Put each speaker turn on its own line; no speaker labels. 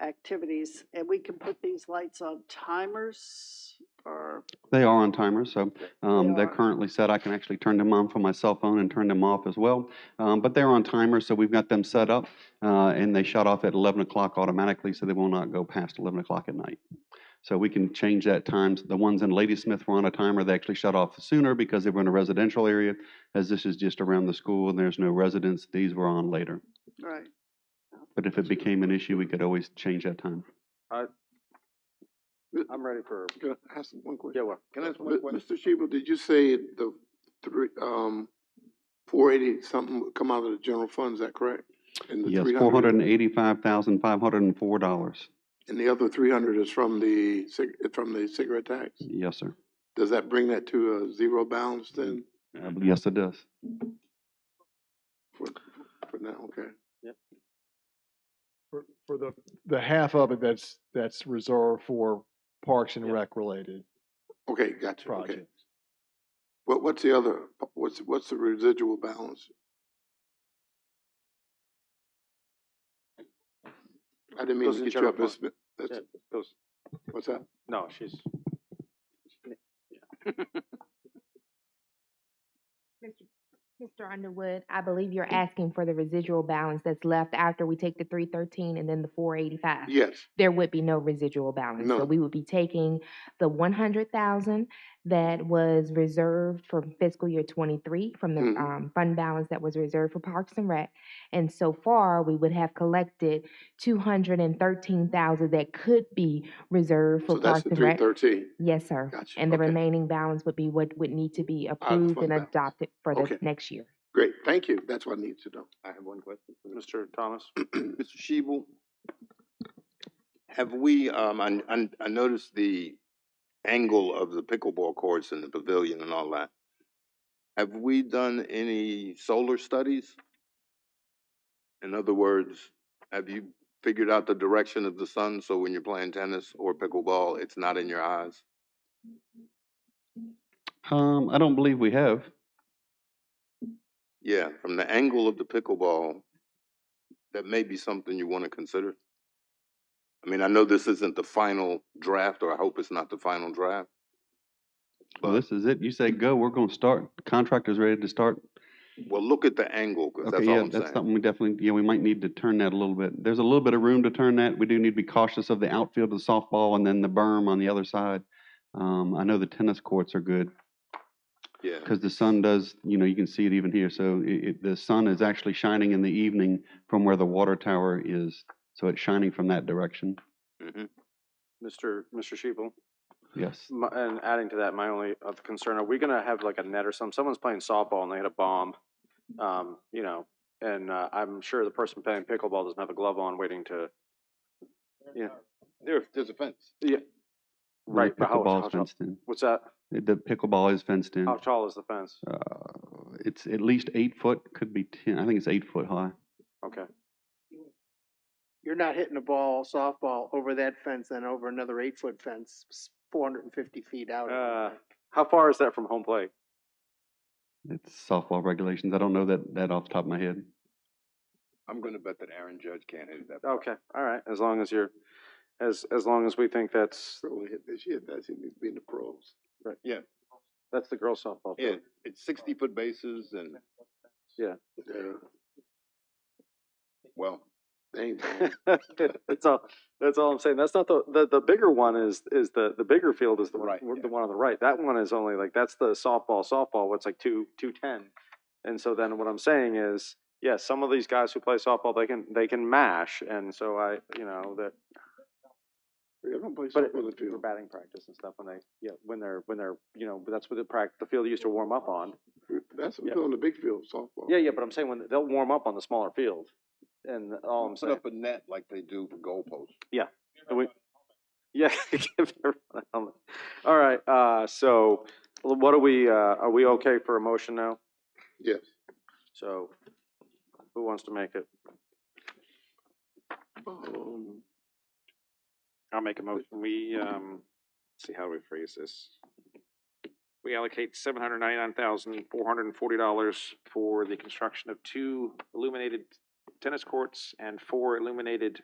activities, and we can put these lights on timers or,
They are on timers, so um,
They
they're
are.
currently set. I can actually turn them on from my cell phone and turn them off as well. Um, But they're on timers, so we've got them set up, uh, and they shut off at 11 o'clock automatically, so they will not go past 11 o'clock at night. So we can change that times. The ones in Ladysmith were on a timer. They actually shut off sooner because they were in a residential area. As this is just around the school and there's no residents, these were on later.
right.
But if it became an issue, we could always change that time.
I'm ready for,
Can I ask one question?
yeah, well,
Can
Uh,
I ask
one
one Mr. Shebal, did you say the three, um, four eighty something would come out of the general fund, is that correct? And the
Yes,
300
$485,504.
And the other three hundred is from the cig, from the cigarette tax?
Yes, sir.
Does that bring that to a zero balance then
I believe- Yes, it does.
for, for now, okay?
For, for the, the half of it that's, that's reserved for Parks and Rec related
Okay, gotcha, okay.
projects.
What, what's the other, what's, what's the residual balance? I didn't mean
Goes
to
in
get you
general
up, Miss Smith. That's,
those,
what's that?
no, she's,
Mr. Underwood, I believe you're asking for the residual balance that's left after we take the three thirteen and then the four eighty-five.
Yes,
There would be no residual balance.
No.
So we would be taking the one hundred thousand that was reserved for fiscal year twenty-three from the,
Mhm.
um, fund balance that was reserved for Parks and Rec. And so far, we would have collected two hundred and thirteen thousand that could be reserved
so
for
that's
Parks
the
and
three
Rec.
thirteen.
Yes, sir.
Gotcha,
And the
okay.
remaining balance would be what would need to be approved
fund
and
balance.
adopted for
Okay.
the next year.
Great, thank you. That's what I need to know.
I have one question. Mr. Thomas?
Mr. Shebel, have we, um, I, I- I noticed the angle of the pickleball courts and the pavilion and all that. Have we done any solar studies? In other words, have you figured out the direction of the sun, so when you're playing tennis or pickleball, it's not in your eyes?
Um, I don't believe we have.
Yeah, from the angle of the pickleball, that may be something you want to consider. I mean, I know this isn't the final draft, or I hope it's not the final draft.
Well, this is it. You say go, we're gonna start. Contractor's ready to start.
Well, look at the angle, because
Okay,
that's
yeah,
all I'm
that's
saying.
something we definitely, yeah, we might need to turn that a little bit. There's a little bit of room to turn that. We do need to be cautious of the outfield of the softball and then the berm on the other side. Um, I know the tennis courts are good
Yeah,
because the sun does, you know, you can see it even here. So it, it, the sun is actually shining in the evening from where the water tower is. So it's shining from that direction.
mhm.
Mr. Mr. Shebel?
Yes.
My, and adding to that, my only other concern, are we gonna have like a net or something? Someone's playing softball and they hit a bomb, um, you know, and, uh, I'm sure the person playing pickleball doesn't have a glove on waiting to, yeah,
There, there's a fence.
yeah,
And the
Right, but how- how
Pickleball's
tall-
fenced in.
what's that?
The pickleball is fenced in.
How tall is the fence?
Uh, it's at least eight foot, could be ten. I think it's eight foot high.
Okay.
you're not hitting the ball softball over that fence then over another eight foot fence four hundred and fifty feet out.
Uh, how far is that from home plate?
It's softball regulations. I don't know that, that off the top of my head.
I'm gonna bet that Aaron Judge can't hit that.
Okay, all right, as long as you're, as, as long as we think that's,
Probably hit this year, that's even being the pros.
that's the girls softball.
Yeah,
field.
it's sixty-foot bases and,
Yeah,
well,
they ain't bad.
that's all. That's all I'm saying. That's not the the, the bigger one is is the the bigger field is the
Right,
one, the
yeah.
one on the right. That one is only like that's the softball softball. What's like two two ten, and so then what I'm saying is yes, some of these guys who play softball they can they can mash, and so I you know that
Yeah, don't play
but
softball in the
for
field.
batting practice and stuff when they yeah when they're when they're you know that's what the practice the field used to warm up on.
That's what we
Yeah.
do on the big field, softball.
Yeah, yeah, but I'm saying when they'll warm up on the smaller field, and all I'm
put
saying
up a net like they do for goalposts.
And we- yeah, give everyone a helmet. All right, uh, so l- what are we, uh, are we okay for a motion now?
Yes.
So who wants to make it?
Um,
I'll make a motion. We, um, let's see how we phrase this. We allocate seven hundred ninety-nine thousand, four hundred and forty dollars for the construction of two illuminated tennis courts and four illuminated